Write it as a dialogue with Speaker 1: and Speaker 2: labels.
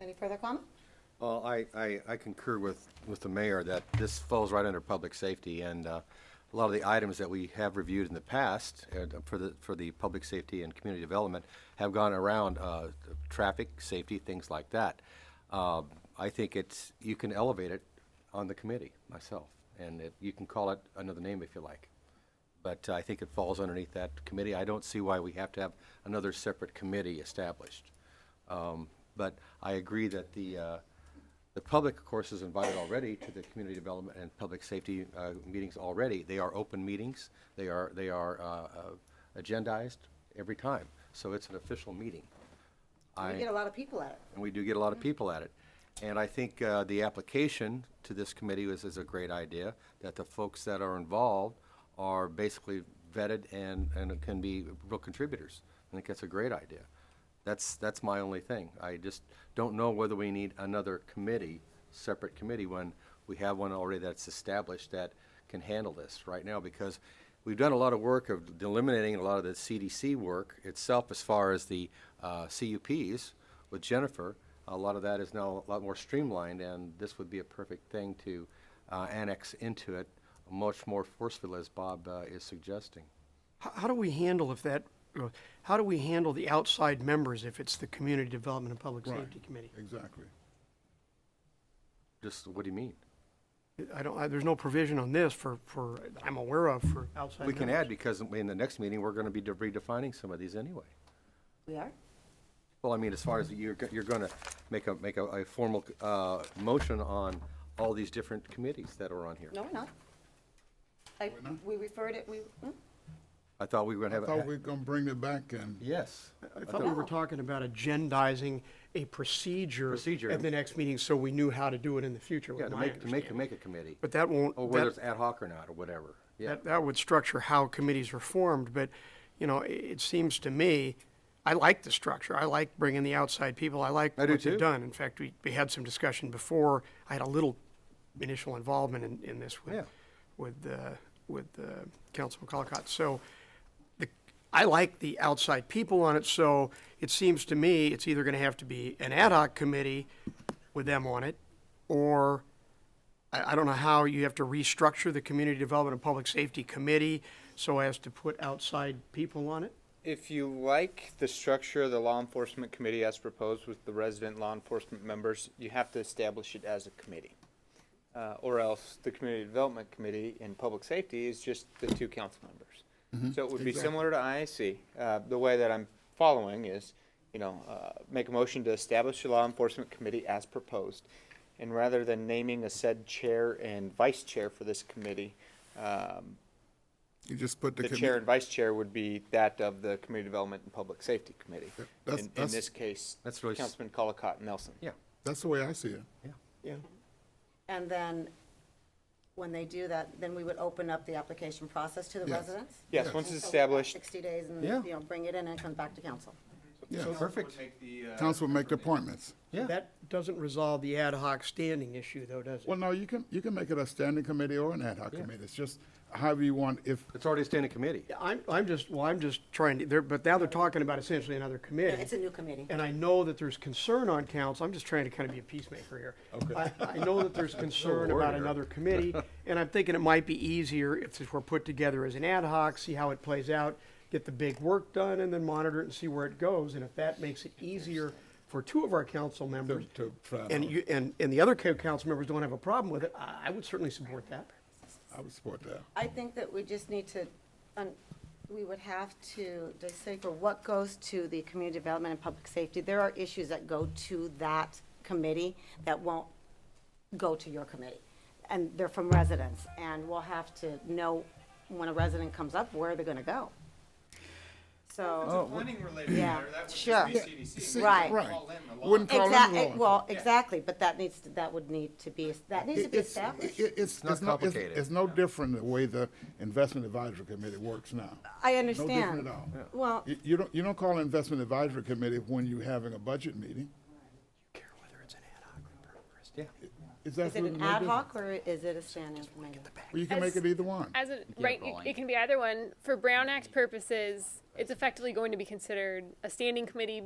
Speaker 1: Any further comment?
Speaker 2: Well, I, I, I concur with, with the mayor that this falls right under public safety, and uh, a lot of the items that we have reviewed in the past uh, for the, for the public safety and community development have gone around uh, traffic, safety, things like that. Uh, I think it's, you can elevate it on the committee, myself, and it- you can call it another name if you like. But I think it falls underneath that committee. I don't see why we have to have another separate committee established. Um, But I agree that the, uh, the public, of course, is invited already to the community development and public safety uh, meetings already. They are open meetings. They are, they are uh, uh, agendized every time. So it's an official meeting.
Speaker 1: We
Speaker 2: I-
Speaker 1: get a lot of people at it.
Speaker 2: and we do get a lot of people at it. And I think uh, the application to this committee is, is a great idea, that the folks that are involved are basically vetted and, and can be real contributors. I think that's a great idea. That's, that's my only thing. I just don't know whether we need another committee, separate committee, when we have one already that's established that can handle this right now, because we've done a lot of work of eliminating a lot of the CDC work itself as far as the uh, CUPs with Jennifer. A lot of that is now a lot more streamlined, and this would be a perfect thing to uh, annex into it much more forcefully, as Bob uh, is suggesting.
Speaker 3: How, how do we handle if that, how do we handle the outside members if it's the Community Development and Public
Speaker 4: Right.
Speaker 3: Safety Committee?
Speaker 4: Exactly.
Speaker 2: Just what do you mean?
Speaker 3: I don't, I, there's no provision on this for, for, I'm aware of for outside.
Speaker 2: We can
Speaker 3: members.
Speaker 2: add because in the next meeting we're going to be de- redefining some of these anyway.
Speaker 1: We are?
Speaker 2: Well, I mean, as far as you're, go- you're going to make a make a, a formal uh, motion on all these different committees that are on here.
Speaker 1: No, we're not. I, we referred it, we, hmm?
Speaker 2: I thought we were going
Speaker 4: I
Speaker 2: to have.
Speaker 4: thought we were gonna bring it back and,
Speaker 2: yes.
Speaker 3: I thought we were
Speaker 1: No.
Speaker 3: talking about agendizing a procedure.
Speaker 2: Procedure.
Speaker 3: At the next meeting, so we knew how to do it in the future,
Speaker 2: Yeah,
Speaker 3: was
Speaker 2: to
Speaker 3: my
Speaker 2: make to make,
Speaker 3: understanding.
Speaker 2: make a committee,
Speaker 3: But that won't,
Speaker 2: or whether
Speaker 3: that,
Speaker 2: it's ad hoc or not, or whatever. Yeah.
Speaker 3: that, that would structure how committees are formed, but, you know, it, it seems to me, I like the structure, I like bringing the outside people, I like
Speaker 2: I
Speaker 3: what
Speaker 2: do
Speaker 3: they've
Speaker 2: too.
Speaker 3: done. In fact, we, we had some discussion before, I had a little initial involvement in, in this
Speaker 2: Yeah.
Speaker 3: with, with, uh, with, uh, Councilman Colacott, so the, I like the outside people on it, so it seems to me it's either gonna have to be an ad hoc committee with them on it, or I, I don't know how you have to restructure the Community Development and Public Safety Committee so as to put outside people on it.
Speaker 5: If you like the structure of the law enforcement committee as proposed with the resident law enforcement members, you have to establish it as a committee. Uh, or else the community development committee in public safety is just the two council members. So it would be similar to IAC. Uh, the way that I'm following is, you know, uh, make a motion to establish a law enforcement committee as proposed. And rather than naming a said chair and vice chair for this committee, um,
Speaker 4: you just put the.
Speaker 5: the
Speaker 4: commi-
Speaker 5: chair and vice chair would be that of the Community Development and Public Safety Committee.
Speaker 4: Yep,
Speaker 5: In,
Speaker 4: that's-
Speaker 5: in
Speaker 4: that's-
Speaker 5: this case,
Speaker 2: That's really s-
Speaker 5: Councilman Colacott Nelson.
Speaker 2: yeah.
Speaker 4: That's the way I see it.
Speaker 3: Yeah.
Speaker 1: and then, when they do that, then we would open up the application process to the
Speaker 4: Yes.
Speaker 1: residents?
Speaker 5: Yes,
Speaker 4: Yes.
Speaker 5: once
Speaker 1: So we
Speaker 5: it's
Speaker 1: have
Speaker 5: established,
Speaker 1: Sixty days and,
Speaker 2: Yeah.
Speaker 1: you know, bring it in and it comes back to council.
Speaker 4: Yeah.
Speaker 2: Perfect.
Speaker 4: Council make the uh, appointments.
Speaker 2: Yeah.
Speaker 3: That doesn't resolve the ad hoc standing issue though, does
Speaker 4: Well,
Speaker 3: it?
Speaker 4: no, you can, you can make it a standing committee or an ad hoc committee. It's just however you want, if,
Speaker 2: It's already a standing committee.
Speaker 3: Yeah, I'm, I'm just, well, I'm just trying to, they're, but now they're talking about essentially another
Speaker 1: Yeah,
Speaker 3: committee.
Speaker 1: It's a new committee.
Speaker 3: and I know that there's concern on council, I'm just trying to kind of be a peacemaker here.
Speaker 4: Oh,
Speaker 3: I, I know that there's concern about
Speaker 2: warrior.
Speaker 3: another committee, and I'm thinking it might be easier if this were put together as an ad hoc, see how it plays out, get the big work done, and then monitor it and see where it goes, and if that makes it easier for two of our council members,
Speaker 4: to try it
Speaker 3: and
Speaker 4: out.
Speaker 3: you, and, and the other co- council members don't have a problem with it, I, I would certainly support that.
Speaker 4: I would support that.
Speaker 1: I think that we just need to, um, we would have to decipher what goes to the community development and public safety. There are issues that go to that committee that won't go to your committee. And they're from residents, and we'll have to know when a resident comes up, where they're gonna go.
Speaker 4: Oh,
Speaker 1: So,
Speaker 5: Planning related
Speaker 1: Yeah, matter, that would just sure. be
Speaker 4: See,
Speaker 1: Right.
Speaker 4: Wouldn't call in
Speaker 1: exactly,
Speaker 4: law.
Speaker 1: eh, well, exactly, but that needs, to- that would need to be, that needs to be
Speaker 4: It's,
Speaker 1: established.
Speaker 4: it- it's,
Speaker 2: not
Speaker 4: it's no, it's,
Speaker 2: complicated.
Speaker 4: it's no different the way the investment advisory committee works now.
Speaker 1: I
Speaker 4: No
Speaker 1: understand.
Speaker 4: different at all.
Speaker 1: Well.
Speaker 4: You, you don't, you don't call an investment advisory committee when you're having a budget meeting.
Speaker 3: Care whether it's an ad hoc or
Speaker 2: Yeah.
Speaker 4: Is that
Speaker 1: Is it an ad hoc or is it a standing committee?
Speaker 4: Well, you can make it either one.
Speaker 6: As an, right, it, it can be either one. For Brown Act purposes, it's effectively going to be considered a standing committee